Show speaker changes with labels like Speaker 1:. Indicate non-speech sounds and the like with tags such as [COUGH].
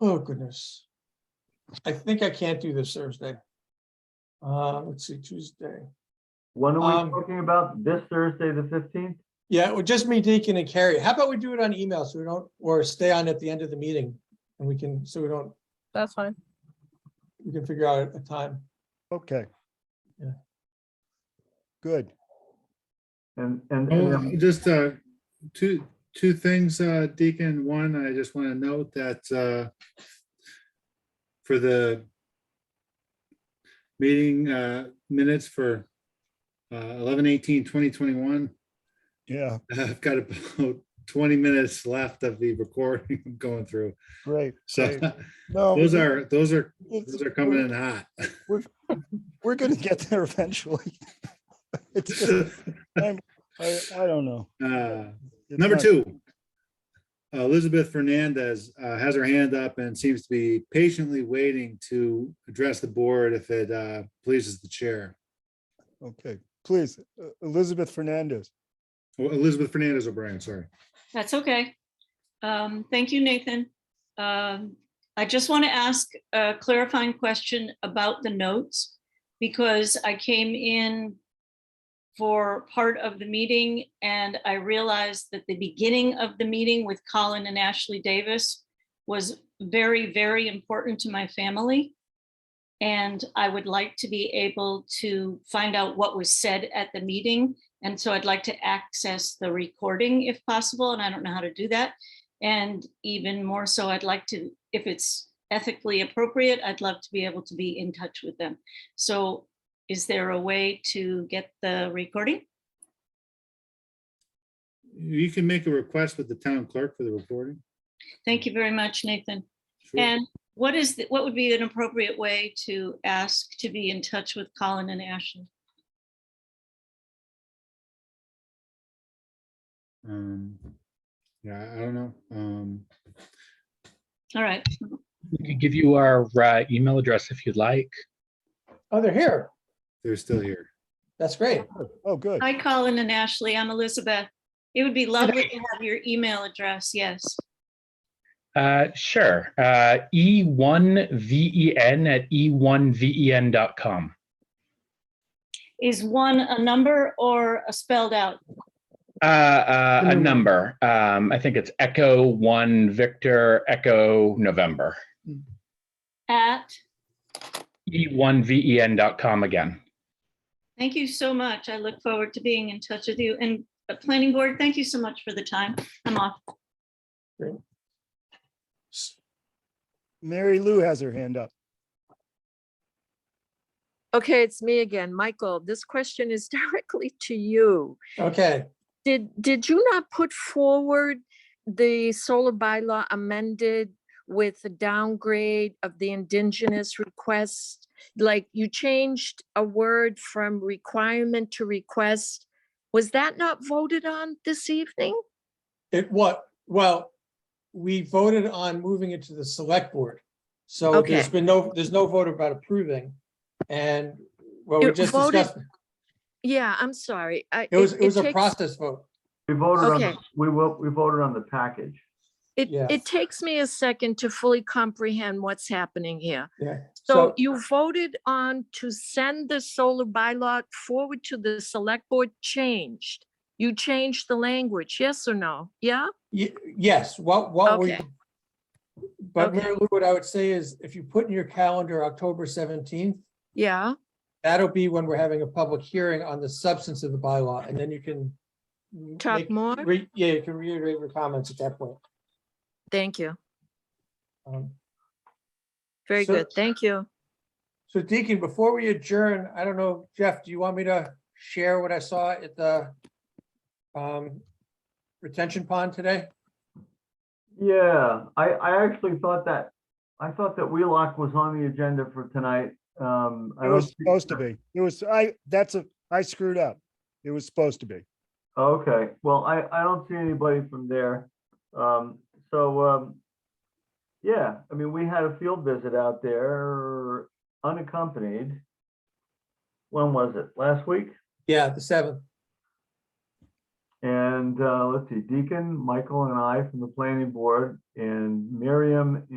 Speaker 1: Oh goodness. I think I can't do this Thursday. Uh, let's see, Tuesday.
Speaker 2: When are
Speaker 1: Um,
Speaker 2: we talking about? This Thursday, the fifteenth?
Speaker 1: Yeah, well, just me, Deacon and Carrie. How about we do it on email so we don't, or stay on at the end of the meeting? And we can, so we don't,
Speaker 3: That's fine.
Speaker 1: we can figure out a time.
Speaker 4: Okay.
Speaker 1: Yeah.
Speaker 4: Good.
Speaker 2: And, and, and,
Speaker 5: Oh,
Speaker 2: um,
Speaker 5: just, uh, two, two things, uh, Deacon. One, I just want to note that, uh, for the meeting, uh, minutes for, uh, 2021.
Speaker 4: Yeah,
Speaker 5: [LAUGHS] I've got about twenty minutes left of the recording I'm going through.
Speaker 4: great.
Speaker 5: So
Speaker 4: great. No.
Speaker 5: [LAUGHS] those
Speaker 4: we-
Speaker 5: are, those are,
Speaker 4: it's-
Speaker 5: those are coming in hot. [LAUGHS]
Speaker 4: We're gonna get there eventually. [LAUGHS] It's, just-
Speaker 5: [LAUGHS]
Speaker 4: I, I don't know.
Speaker 5: Uh,
Speaker 4: It's
Speaker 5: Number
Speaker 4: not-
Speaker 5: two. Elizabeth Fernandez uh, has her hand up and seems to be patiently waiting to address the board if it uh, pleases the chair.
Speaker 4: Okay, please, uh, Elizabeth Fernandez.
Speaker 5: Oh, Elizabeth Fernandez O'Brien, sorry.
Speaker 6: That's okay. Um, Thank you, Nathan. Um, I just want to ask a clarifying question about the notes because I came in for part of the meeting and I realized that the beginning of the meeting with Colin and Ashley Davis was very, very important to my family. And I would like to be able to find out what was said at the meeting and so I'd like to access the recording if possible, and I don't know how to do that. And even more so, I'd like to, if it's ethically appropriate, I'd love to be able to be in touch with them. So is there a way to get the recording?
Speaker 5: You can make a request with the town clerk for the recording.
Speaker 6: Thank you very much, Nathan.
Speaker 5: Sure.
Speaker 6: And what is, the- what would be an appropriate way to ask to be in touch with Colin and Ashley?
Speaker 5: Um, Yeah, I don't know. Um,
Speaker 6: All right,
Speaker 7: We could give you our uh, email address if you'd like.
Speaker 1: Oh, they're here.
Speaker 5: They're still here.
Speaker 1: That's great.
Speaker 4: Oh, good.
Speaker 6: hi, Colin and Ashley, I'm Elizabeth. It would be lovely to have your email address, yes.
Speaker 7: Uh, sure. Uh, E1VEN E at E E1VEN.com.
Speaker 6: Is one a number or a spelled out?
Speaker 7: Uh, uh, a number. Um, I think it's Echo 1 Victor Echo November.
Speaker 6: At,
Speaker 7: E E1VEN.com again.
Speaker 6: thank you so much. I look forward to being in touch with you. And the planning board, thank you so much for the time. I'm off.
Speaker 4: Mary Lou has her hand up.
Speaker 3: Okay, it's me again. Michael, this question is [LAUGHS] directly to you.
Speaker 1: Okay,
Speaker 3: Did, did you not put forward the solar bylaw amended with the downgrade of the indigenous request? Like you changed a word from requirement to request. Was that not voted on this evening?
Speaker 1: it what? Well, we voted on moving it to the select board. So there's
Speaker 3: Okay.
Speaker 1: been no, there's no vote about approving. And well, we
Speaker 3: You
Speaker 1: just
Speaker 3: voted-
Speaker 1: discussed,
Speaker 3: Yeah, I'm sorry. I-
Speaker 1: it was, it was a
Speaker 3: takes-
Speaker 1: process vote.
Speaker 2: we voted on,
Speaker 3: Okay.
Speaker 2: the- we will, we voted on the package.
Speaker 3: It,
Speaker 1: Yeah.
Speaker 3: it takes me a second to fully comprehend what's happening here.
Speaker 1: Yeah.
Speaker 3: So you voted on to send the solar bylaw forward to the select board changed. You changed the language, yes or no? Yeah?
Speaker 1: Ye- Yes, what, what we.
Speaker 3: Okay.
Speaker 1: But
Speaker 3: Okay.
Speaker 1: Mary Lou, what I would say is if you put in your calendar October seventeenth,
Speaker 3: Yeah.
Speaker 1: that'll be when we're having a public hearing on the substance of the bylaw and then you can. m-
Speaker 3: Talk
Speaker 1: make-
Speaker 3: more?
Speaker 1: re- Yeah, you can reiterate your comments at that point.
Speaker 3: Thank you.
Speaker 1: Um,
Speaker 3: Very
Speaker 1: So-
Speaker 3: good. Thank you.
Speaker 1: So Deacon, before we adjourn, I don't know, Jeff, do you want me to share what I saw at the um, retention pond today?
Speaker 2: Yeah, I, I actually thought that, I thought that Wheelock was on the agenda for tonight. Um, I
Speaker 4: It
Speaker 2: don't
Speaker 4: was
Speaker 2: see-
Speaker 4: supposed to be. It was, I, that's a, I screwed up. It was supposed to be.
Speaker 2: Okay, well, I, I don't see anybody from there. Um, so, um, yeah, I mean, we had a field visit out there unaccompanied. When was it? Last week?
Speaker 1: Yeah, the seventh.
Speaker 2: And, uh, let's see, Deacon, Michael and I from the planning board and Miriam